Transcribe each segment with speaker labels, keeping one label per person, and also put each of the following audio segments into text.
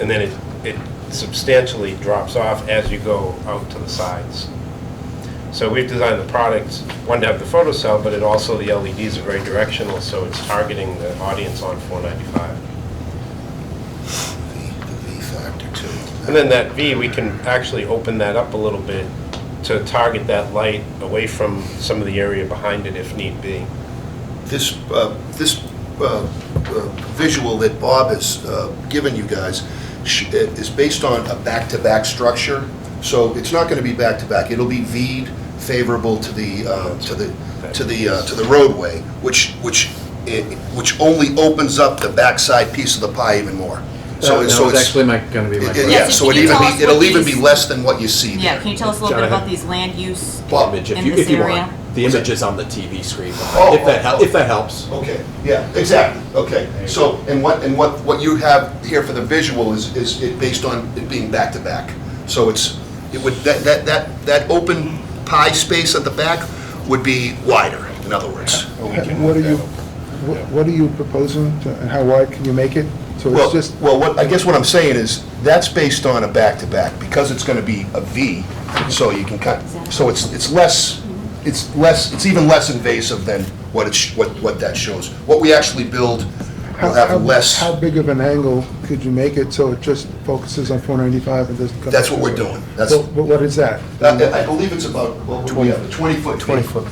Speaker 1: and then it, it substantially drops off as you go out to the sides. So we've designed the products, one to have the photocell, but it also, the LEDs are very directional, so it's targeting the audience on 495.
Speaker 2: the V factor too.
Speaker 1: And then that V, we can actually open that up a little bit to target that light away from some of the area behind it if need be.
Speaker 2: This, uh, this uh, uh, visual that Bob has uh, given you guys sh- it is based on a back-to-back structure, so it's not going to be back-to-back. It'll be V'd favorable to the, uh, to the, to the, uh, to the roadway, which, which, it- which only opens up the backside piece of the pie even more. So
Speaker 3: That
Speaker 2: it's so
Speaker 3: was
Speaker 2: it's
Speaker 3: Uh, actually my, gonna
Speaker 2: it-
Speaker 3: be my
Speaker 2: it-
Speaker 3: question.
Speaker 2: Yeah,
Speaker 4: Yes, and
Speaker 2: so
Speaker 4: can
Speaker 2: it
Speaker 4: you
Speaker 2: even
Speaker 4: tell us
Speaker 2: be,
Speaker 4: what
Speaker 2: it'll even
Speaker 4: these-
Speaker 2: be less than what you see
Speaker 4: Yeah,
Speaker 2: there.
Speaker 4: can you tell us a little bit
Speaker 3: Jonathan.
Speaker 4: about these land use?
Speaker 2: Bob,
Speaker 5: image,
Speaker 4: in
Speaker 5: if you,
Speaker 4: this
Speaker 5: if you
Speaker 4: area?
Speaker 5: want. The image is on the TV screen
Speaker 2: Oh,
Speaker 5: behind, if that,
Speaker 2: oh,
Speaker 5: hel-
Speaker 2: oh.
Speaker 5: if that helps.
Speaker 2: Okay, yeah, exactly, okay. So, and what, and what, what you have here for the visual is, is it based on it being back-to-back. So it's, it would, that, that, that, that open pie space at the back would be wider, in other words.
Speaker 6: What are you, wh- what are you proposing, to- and how wide can you make it? So
Speaker 2: Well,
Speaker 6: it's just,
Speaker 2: well, what, I guess what I'm saying is, that's based on a back-to-back, because it's gonna be a V, so you can cut, so it's, it's less, it's less, it's even less invasive than what it's, what, what that shows. What we actually build
Speaker 6: how,
Speaker 2: will have less.
Speaker 6: how- how big of an angle could you make it so it just focuses on 495 and doesn't come?
Speaker 2: That's what we're doing. That's,
Speaker 6: But but what is that?
Speaker 2: Uh, I I believe it's about, what would we have, a 20-foot?
Speaker 6: 20-foot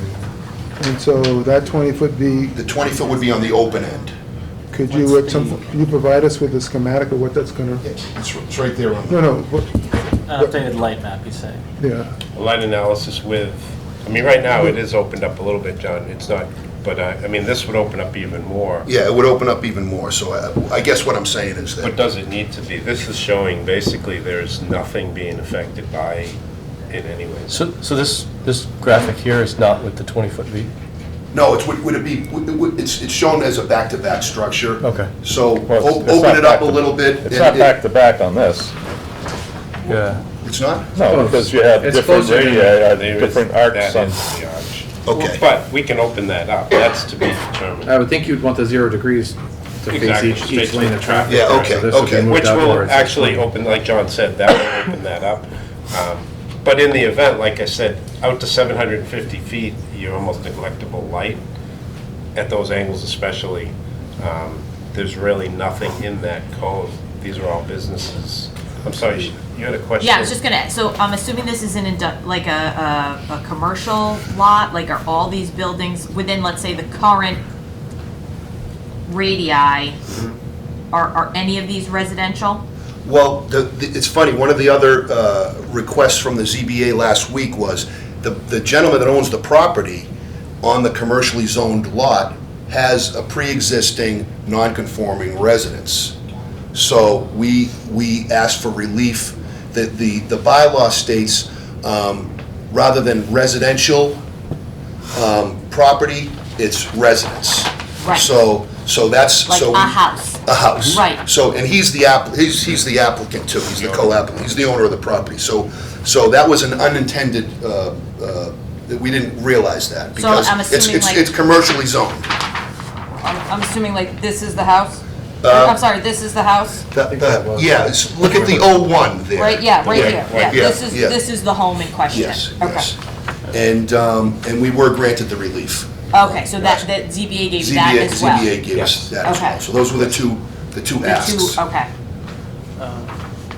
Speaker 6: And so that 20-foot V,
Speaker 2: The 20-foot would be on the open end.
Speaker 6: could you, at some, can you provide us with a schematic of what that's gonna,
Speaker 2: It's r- it's right there on
Speaker 6: no,
Speaker 2: the,
Speaker 6: no, what-
Speaker 7: An Updated light map, you say?
Speaker 6: yeah,
Speaker 1: A light analysis with, I mean, right now, it is opened up a little bit, John, it's not, but uh, I, I mean, this would open up even more.
Speaker 2: yeah, it would open up even more, so I- I guess what I'm saying is
Speaker 1: What
Speaker 2: that,
Speaker 1: does it need to be? This is showing basically there's nothing being affected by it anyways.
Speaker 8: So, so this, this graphic here is not with the 20-foot V?
Speaker 2: no, it's, would would it be, would- it would- it's it's shown as a back-to-back structure.
Speaker 8: Okay.
Speaker 2: So
Speaker 9: Well,
Speaker 2: o-
Speaker 9: it's not
Speaker 2: open it up
Speaker 9: back
Speaker 2: a
Speaker 9: to-
Speaker 2: little bit.
Speaker 9: It's
Speaker 2: and
Speaker 9: not
Speaker 2: it-
Speaker 9: back to back on this,
Speaker 8: Yeah.
Speaker 2: It's not?
Speaker 9: no, because you have
Speaker 3: It's
Speaker 9: different
Speaker 3: closer to-
Speaker 9: radii, uh,
Speaker 1: There is-
Speaker 9: different
Speaker 1: that
Speaker 9: arcs on.
Speaker 1: is the arch.
Speaker 2: Okay.
Speaker 1: But we can open that up, that's to be
Speaker 3: I
Speaker 1: determined,
Speaker 3: would think you'd want the zero degrees to face
Speaker 1: Exactly,
Speaker 3: each,
Speaker 1: straight
Speaker 3: each
Speaker 1: to
Speaker 3: lane
Speaker 1: the
Speaker 3: of traffic.
Speaker 2: Yeah,
Speaker 3: right?
Speaker 2: okay,
Speaker 3: So this would be
Speaker 2: okay.
Speaker 3: moved
Speaker 1: which will
Speaker 3: outdoors.
Speaker 1: actually open, like John said, that will open that up. Um, But in the event, like I said, out to 750 feet, you're almost neglectable light, at those angles especially. um, There's really nothing in that cone, these are all businesses. I'm sorry, you had a question?
Speaker 4: Yeah, I was just gonna, so I'm assuming this is an, indu- like a, a, a commercial lot, like are all these buildings within, let's say, the current radii, are,
Speaker 2: Mm-hmm.
Speaker 4: are any of these residential?
Speaker 2: Well, the, the- it's funny, one of the other uh, requests from the ZBA last week was, the the gentleman that owns the property on the commercially zoned lot has a pre-existing non-conforming residence. So we, we asked for relief, that the, the bylaw states, um, rather than residential um, property, it's residence.
Speaker 4: Right.
Speaker 2: So, so that's,
Speaker 4: Like
Speaker 2: so.
Speaker 4: a
Speaker 2: we-
Speaker 4: house?
Speaker 2: a house.
Speaker 4: Right.
Speaker 2: So, and he's the app, he's, he's the applicant too, he's the co-applicant, he's the owner of the property. So, so that was an unintended, uh, uh, that we didn't realize that.
Speaker 4: So I'm
Speaker 2: because it's-
Speaker 4: assuming,
Speaker 2: it's-
Speaker 4: like-
Speaker 2: It's commercially zoned.
Speaker 4: I'm, I'm assuming like this is the house? Or,
Speaker 2: Uh,
Speaker 4: I'm sorry, this is the house,
Speaker 3: that was-
Speaker 2: Yeah, it's, look at the O1 there.
Speaker 4: right, yeah, right
Speaker 2: Yeah,
Speaker 4: here, yeah,
Speaker 2: right, yeah,
Speaker 4: this is,
Speaker 2: yeah.
Speaker 4: this is the home in question?
Speaker 2: Yes,
Speaker 4: Okay.
Speaker 2: yes. And, um, and we were granted the relief.
Speaker 4: Okay, so that, that ZBA gave that
Speaker 2: ZBA,
Speaker 4: as well?
Speaker 2: ZBA gave us that as
Speaker 4: Okay.
Speaker 2: well. So those were the two, the two
Speaker 4: The two-
Speaker 2: asks.
Speaker 4: Okay,
Speaker 7: Um,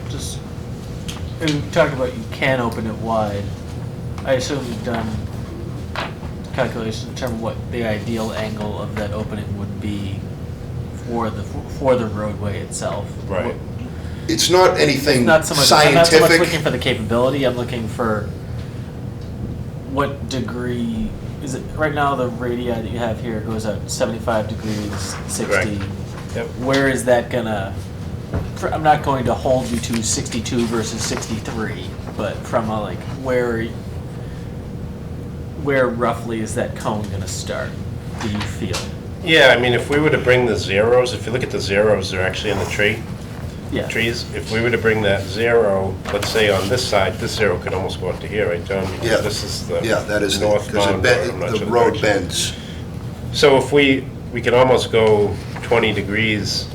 Speaker 7: Just, and we talked about you can open it wide. I assume you've done calculations to determine what the ideal angle of that opening would be for the, for the roadway itself.
Speaker 1: Right.
Speaker 2: It's not anything
Speaker 7: Not so much, I'm not so much looking
Speaker 2: scientific.
Speaker 7: for the capability, I'm looking for what degree, is it, right now the radii that you have here goes out seventy-five degrees, sixty.
Speaker 1: Correct. Yep.
Speaker 7: Where is that gonna, fr- I'm not going to hold you to sixty-two versus sixty-three, but from a like, where, where roughly is that cone gonna start, do you feel?
Speaker 1: Yeah, I mean, if we were to bring the zeros, if you look at the zeros, they're actually in the tree,
Speaker 7: Yeah.
Speaker 1: trees. If we were to bring that zero, let's say on this side, this zero could almost go up to here, right, John? Because
Speaker 2: Yeah.
Speaker 1: This is the
Speaker 2: Yeah, that is,
Speaker 1: north
Speaker 2: because
Speaker 1: bound, I'm not
Speaker 2: the
Speaker 1: sure
Speaker 2: road
Speaker 1: direction.
Speaker 2: bends.
Speaker 1: So if we, we can almost go 20 degrees